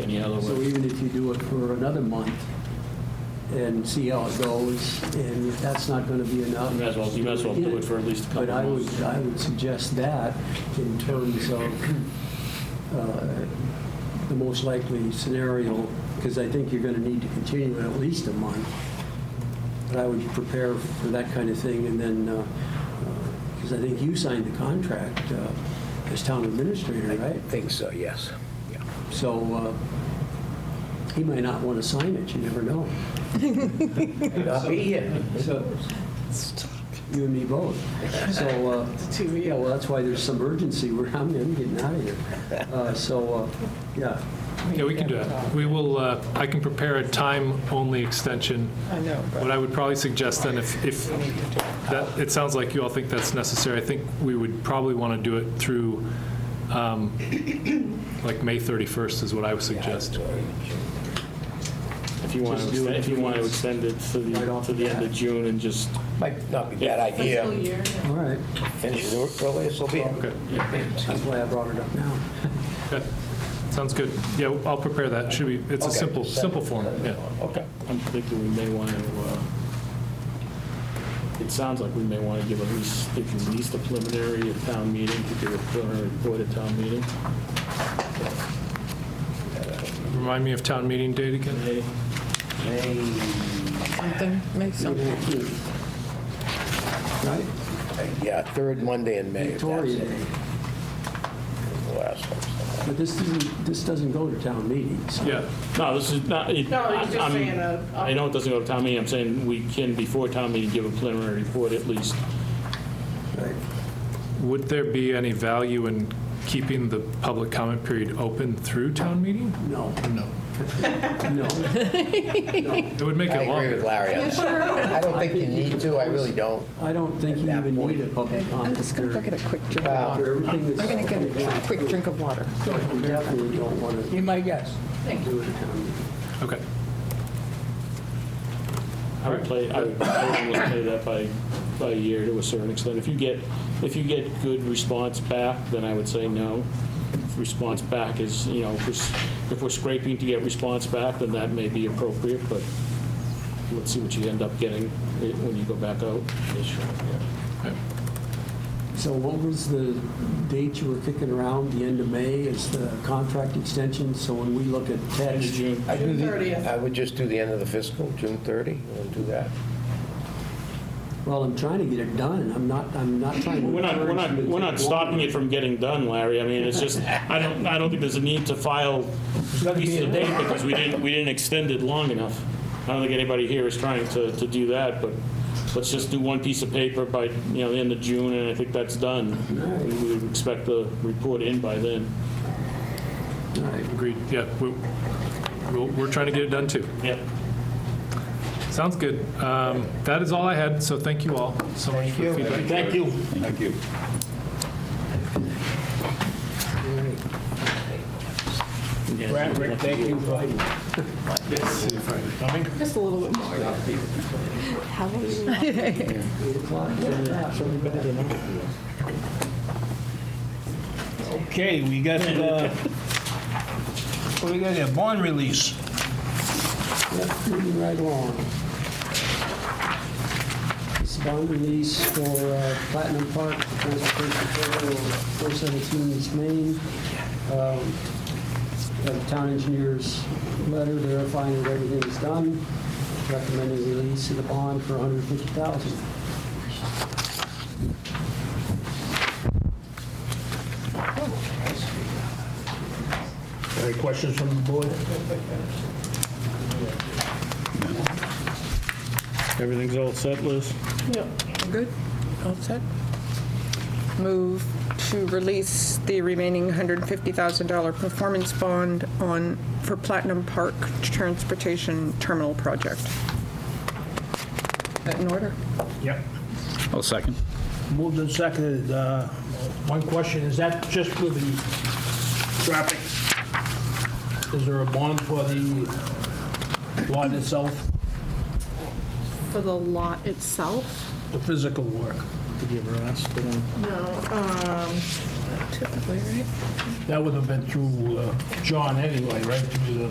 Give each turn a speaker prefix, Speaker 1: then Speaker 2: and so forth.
Speaker 1: other
Speaker 2: So
Speaker 1: way.
Speaker 2: even if you do it for another month and see how it goes, and if that's not going to be enough.
Speaker 1: You may as well, you may as well do it for at least a
Speaker 2: But
Speaker 1: couple
Speaker 2: I
Speaker 1: of
Speaker 2: would,
Speaker 1: months.
Speaker 2: I would suggest that in terms of uh, the most likely scenario, because I think you're going to need to continue it at least a month. But I would prepare for that kind of thing, and then, because I think you signed the contract uh, as town administrator, right?
Speaker 3: Think so, yes. Yeah.
Speaker 2: So uh, he might not want to sign it, you never know.
Speaker 3: May Not be here.
Speaker 2: So You and me both. So, uh, yeah, well, that's why there's some urgency where I'm I'm getting out of here. Uh, So, uh, yeah,
Speaker 4: Yeah, we can do that. We will, uh, I can prepare a time-only extension.
Speaker 5: I know,
Speaker 4: What I would probably suggest then, if, if, that, it sounds like you all think that's necessary, I think we would probably want to do it through, um, like, May 31st is what I would suggest.
Speaker 1: If you want to
Speaker 2: Just do
Speaker 1: extend,
Speaker 2: it
Speaker 1: if you
Speaker 2: two
Speaker 1: want to
Speaker 2: months.
Speaker 1: extend it to
Speaker 2: Right
Speaker 1: the,
Speaker 2: off
Speaker 1: to the end of June and just,
Speaker 3: Might not be a bad
Speaker 5: Fiscal
Speaker 3: idea.
Speaker 5: year.
Speaker 2: all right.
Speaker 3: Finish it early, so be it.
Speaker 4: Okay,
Speaker 2: That's why I brought it up now.
Speaker 4: good. Sounds good. Yeah, I'll prepare that. Should be, it's a
Speaker 3: Okay.
Speaker 4: simple, simple form, yeah.
Speaker 3: Okay.
Speaker 1: I'm thinking we may want to, uh, it sounds like we may want to give at least, at least a preliminary at town meeting, to give a preliminary report at town meeting.
Speaker 4: Remind me of town meeting date again?
Speaker 1: May,
Speaker 5: Something, make something.
Speaker 2: Right?
Speaker 3: Yeah, third Monday in May. if that's
Speaker 2: Victoria
Speaker 3: it.
Speaker 2: Day.
Speaker 3: The last one.
Speaker 2: But this doesn't, this doesn't go to town meetting, so.
Speaker 4: Yeah,
Speaker 1: no, this is not, it-
Speaker 5: No, he's just
Speaker 1: I'm-
Speaker 5: saying uh, a-
Speaker 1: I know it doesn't go to town meeting, I'm saying we can, before town meeting, give a preliminary report at least.
Speaker 2: Right.
Speaker 4: would there be any value in keeping the public comment period open through town meeting?
Speaker 2: No,
Speaker 4: No.
Speaker 2: no.
Speaker 4: It would make
Speaker 3: I
Speaker 4: it
Speaker 3: agree
Speaker 4: longer.
Speaker 3: with Larry on that. I don't think you need to, I really don't.
Speaker 2: I don't think you
Speaker 3: At that
Speaker 2: even
Speaker 3: point.
Speaker 2: need a public
Speaker 5: I'm
Speaker 2: comment.
Speaker 5: just going to go get a quick drink of
Speaker 3: Wow.
Speaker 2: After
Speaker 5: water.
Speaker 2: everything that's.
Speaker 5: I'm going to get a quick drink of water.
Speaker 2: You definitely don't want to
Speaker 3: You might guess.
Speaker 2: do it at town meeting.
Speaker 4: Okay.
Speaker 1: I would play, I would I would play that by, by year to a certain extent. If you get, if you get good response back, then I would say no. If Response back is, you know, if we're s- if we're scraping to get response back, then that may be appropriate, but let's see what you end up getting i- when you go back out.
Speaker 2: So what was the date you were kicking around, the end of May, is the contract extension? So when we look at
Speaker 1: End of
Speaker 2: text,
Speaker 1: June,
Speaker 3: I do the,
Speaker 5: 30th.
Speaker 3: I would just do the end of the fiscal, June 30. You want to do that?
Speaker 2: well, I'm trying to get it done, I'm not, I'm not trying to.
Speaker 1: We're not, we're not,
Speaker 2: encourage you to
Speaker 1: we're not
Speaker 2: take
Speaker 1: stopping it from getting done, Larry. I mean, it's just, I don't, I don't think there's a need to file pieces of data because we didn't, we didn't extend it long enough. I don't think anybody here is trying to, to do that, but let's just do one piece of paper by, you know, the end of June, and I think that's done. And We would expect the report in by then.
Speaker 2: long. All right.
Speaker 4: Agreed, yeah, we- we'll- we're trying to get it done, too.
Speaker 1: Yep.
Speaker 4: Sounds good. Um, That is all I had, so thank you all so much for your feedback.
Speaker 1: Thank you.
Speaker 6: Thank you.
Speaker 1: Brad, Rick, thank you.
Speaker 5: Just a little bit more. How are you?
Speaker 7: Okay, we got, uh, what we got here, bond release.
Speaker 2: Yep, Moving right along. This bond release for uh, Platinum Park, Transportation Corridor, 417 East Main. Um, The town engineer's letter verifying that everything is done, recommending release of the bond for 150000
Speaker 7: Any questions from the board?
Speaker 1: Everything's all set, Liz?
Speaker 5: Good? All set? Move to release the remaining $150,000 performance bond on, for Platinum Park Transportation Terminal Project. That in order?
Speaker 7: Yep.
Speaker 6: I'll second.
Speaker 7: Moved and seconded. Uh, One question, is that just for the traffic? Is there a bond for the lot itself,
Speaker 8: For the lot itself?
Speaker 7: the physical work?
Speaker 1: Did you ever ask for them?
Speaker 5: No. um, Typically, right?
Speaker 7: That would have been through uh, John anyway, right, through the